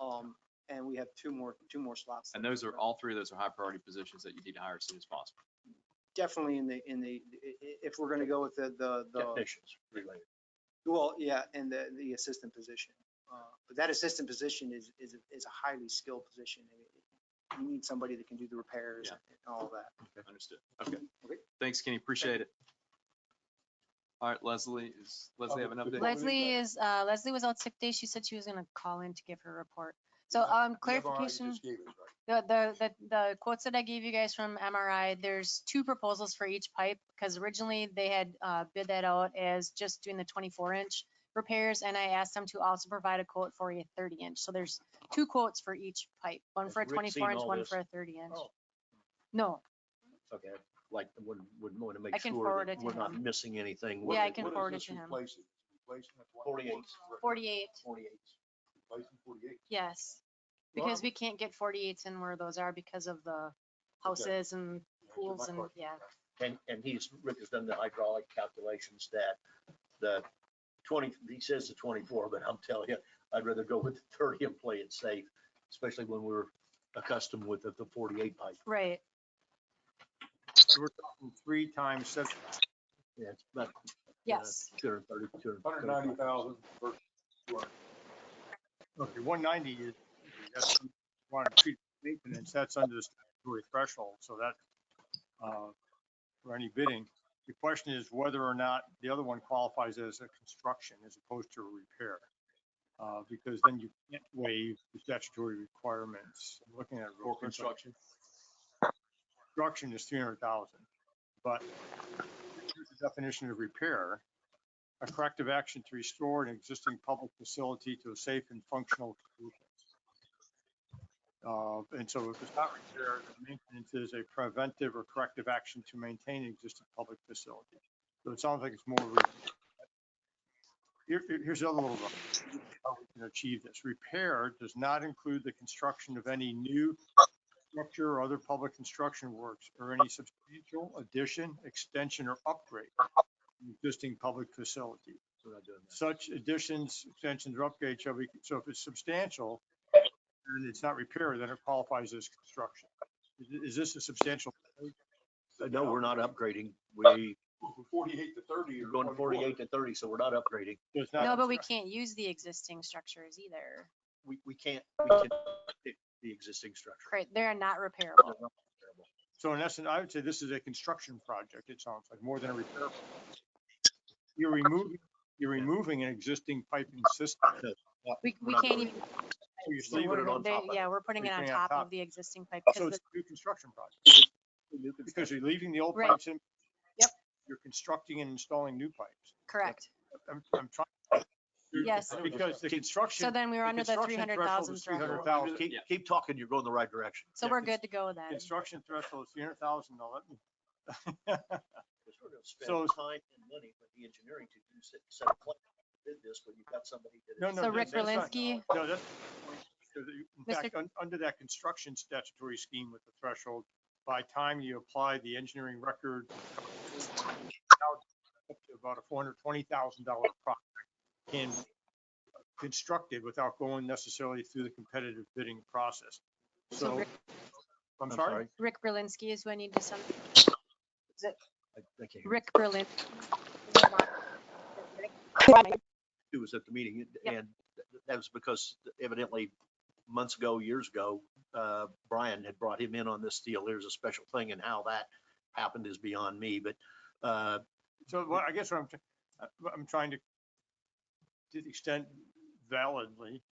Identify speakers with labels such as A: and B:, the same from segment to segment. A: Um, and we have two more, two more slots.
B: And those are, all three of those are high priority positions that you need to hire as soon as possible.
A: Definitely in the, in the, i- i- if we're gonna go with the, the, the,
C: Technicians related.
A: well, yeah, and the, the assistant position. Uh, But that assistant position is, is, is a highly skilled position. and it- You need somebody that can do the repairs
B: Yeah.
A: and all that.
B: Understood. Okay.
A: Okay.
B: Thanks, Kenny. Appreciate it. All right, Leslie, is Leslie have an update?
C: Before we leave
D: Leslie
C: that-
D: is, uh, Leslie was out sick day. She said she was gonna call in to give her report. So,
C: Yeah,
D: um,
C: Never mind, you
D: clarification,
C: just gave us, right?
D: the, the, the, the quotes that I gave you guys from MRI, there's two proposals for each pipe. Cause originally they had, uh, bid that out as just doing the twenty-four inch repairs and I asked them to also provide a quote for a thirty inch. So there's two quotes for each pipe, one
C: Has
D: for a
C: Rick seen
D: twenty-four inch,
C: all
D: one
C: this?
D: for a thirty inch.
C: Oh.
D: No,
C: Okay, I'd like, would, would want to
D: I
C: make
D: can forward
C: sure
D: it
C: that
D: to
C: we're not
D: him.
C: missing anything.
D: Yeah, I
C: What-
D: can
C: what is
D: forward it
C: this
D: to him.
C: replacing? Replacing at what?
E: Forty-eight.
D: forty-eight,
C: Forty-eight. Replacing forty-eight.
D: yes.
C: Well,
D: Because
C: I'm-
D: we can't get forty-eights in where those are because of the houses and
C: Answer my
D: pools and,
C: question.
D: yeah.
C: And, and he's, Rick has done the hydraulic calculations that the twenty, he says the twenty-four, but I'm telling you, I'd rather go with the thirty and play it safe, especially when we're accustomed with the the forty-eight pipe.
D: Right,
F: So we're talking three times seven,
C: Yeah, it's about
D: yes.
C: two hundred thirty, two
E: Hundred ninety thousand versus two hundred.
F: okay, one ninety is, that's, one treat maintenance, that's under the statutory threshold, so that, uh, for any bidding. The question is whether or not the other one qualifies as a construction as opposed to a repair. Uh, because then you can't waive the statutory requirements. I'm Looking at. it real
B: For
F: quick.
B: construction?
F: Construction is three hundred thousand, but here's the definition of repair. A corrective action to restore an existing public facility to a safe and functional condition. Uh, and so if it's not repair, then maintenance is a preventive or corrective action to maintain an existing public facility. So it sounds like it's more. re- Here, here- here's the other little. one, How we can achieve this. Repair does not include the construction of any new structure or other public construction works or any substantial addition, extension, or upgrade to an existing public facility. Such additions, extensions, or upgrades shall be, so if it's substantial and it's not repair, then it qualifies as construction. Is- Is this a substantial?
C: Uh, No, we're not upgrading. We,
E: From forty-eight to thirty.
C: you're
E: or
C: going to
E: 24.
C: forty-eight to thirty, so we're not upgrading.
F: it's not
D: No, but we
F: construction.
D: can't use the existing structures either.
C: We, we can't, we can update the existing structure.
D: Right, they're not repairable.
F: So in essence, I would say this is a construction project, it sounds like, more than a repair. project. You're removing, you're removing an existing piping system.
D: We, we
C: not
D: can't even,
F: You're
C: Just leaving it
F: leaving-
C: on
D: they-
C: top of it.
D: yeah, we're putting it
F: We're
D: on
F: putting it on
D: top
F: top.
D: of the existing pipe.
F: So
D: 'cause
F: it's a new construction project.
C: New
F: Because you're leaving the old
D: Right.
F: pipes in.
D: Yep.
F: You're constructing and installing new pipes.
D: the- Correct.
F: I'm, I'm trying.
D: Yes.
F: Because the construction.
D: So then we were
F: the
D: under the three
F: construction
D: hundred
F: threshold
D: thousand
F: is 300,000.
D: threshold.
C: Now, Keep,
B: Yeah.
C: keep talking, you're going the right direction.
D: So
F: yeah,
D: we're
F: cons-
D: good to go then.
F: Construction threshold is three hundred thousand, now let me.
C: Because we're gonna
F: So-
C: spend time and money with the engineering to do set, set a plan, did this, but you've got somebody that is.
F: No, no,
D: So
F: that-
D: Rick
F: that's not-
D: Berlinski,
F: No, that's. because you- In
D: Mr.
F: fact, un- under that construction statutory scheme with the threshold, by time you apply the engineering record. up to About a four hundred twenty thousand dollar project can be constructed without going necessarily through the competitive bidding process.
D: So
F: So,
D: Rick-
F: I'm sorry,
D: Rick Berlinski is who I need to send. Is it
C: I I can't hear
D: Rick Berlin?
C: who was at the meeting and-
D: Yep.
C: and th- that was because evidently months ago, years ago, uh, Brian had brought him in on this deal. There's a special thing and how that happened is beyond me, but, uh,
F: so what, I guess what I'm, tr- uh, what I'm trying to, to the extent validly,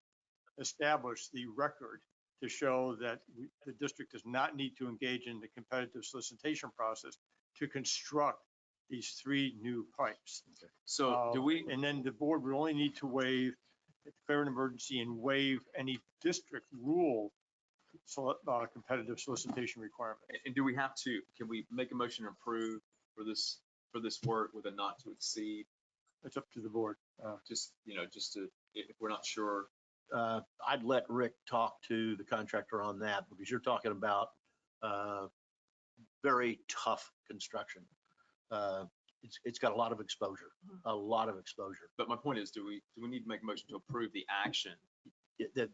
F: establish the record to show that we- the district does not need to engage in the competitive solicitation process to construct these three new pipes.
B: So do
F: Uh,
B: we,
F: And then the board would only need to waive, declare an emergency and waive any district rule soli- uh, competitive solicitation requirement.
B: and do we have to, can we make a motion to approve for this, for this work with a not to exceed?
F: It's up to the board.
B: Just, you know, just to, if if we're not sure,
C: uh, I'd let Rick talk to the contractor on that because you're talking about, uh, very tough construction. Uh, it's, it's got a lot of exposure, a lot of exposure.
B: but my point is, do we, do we need to make a motion to approve the action?
C: it- that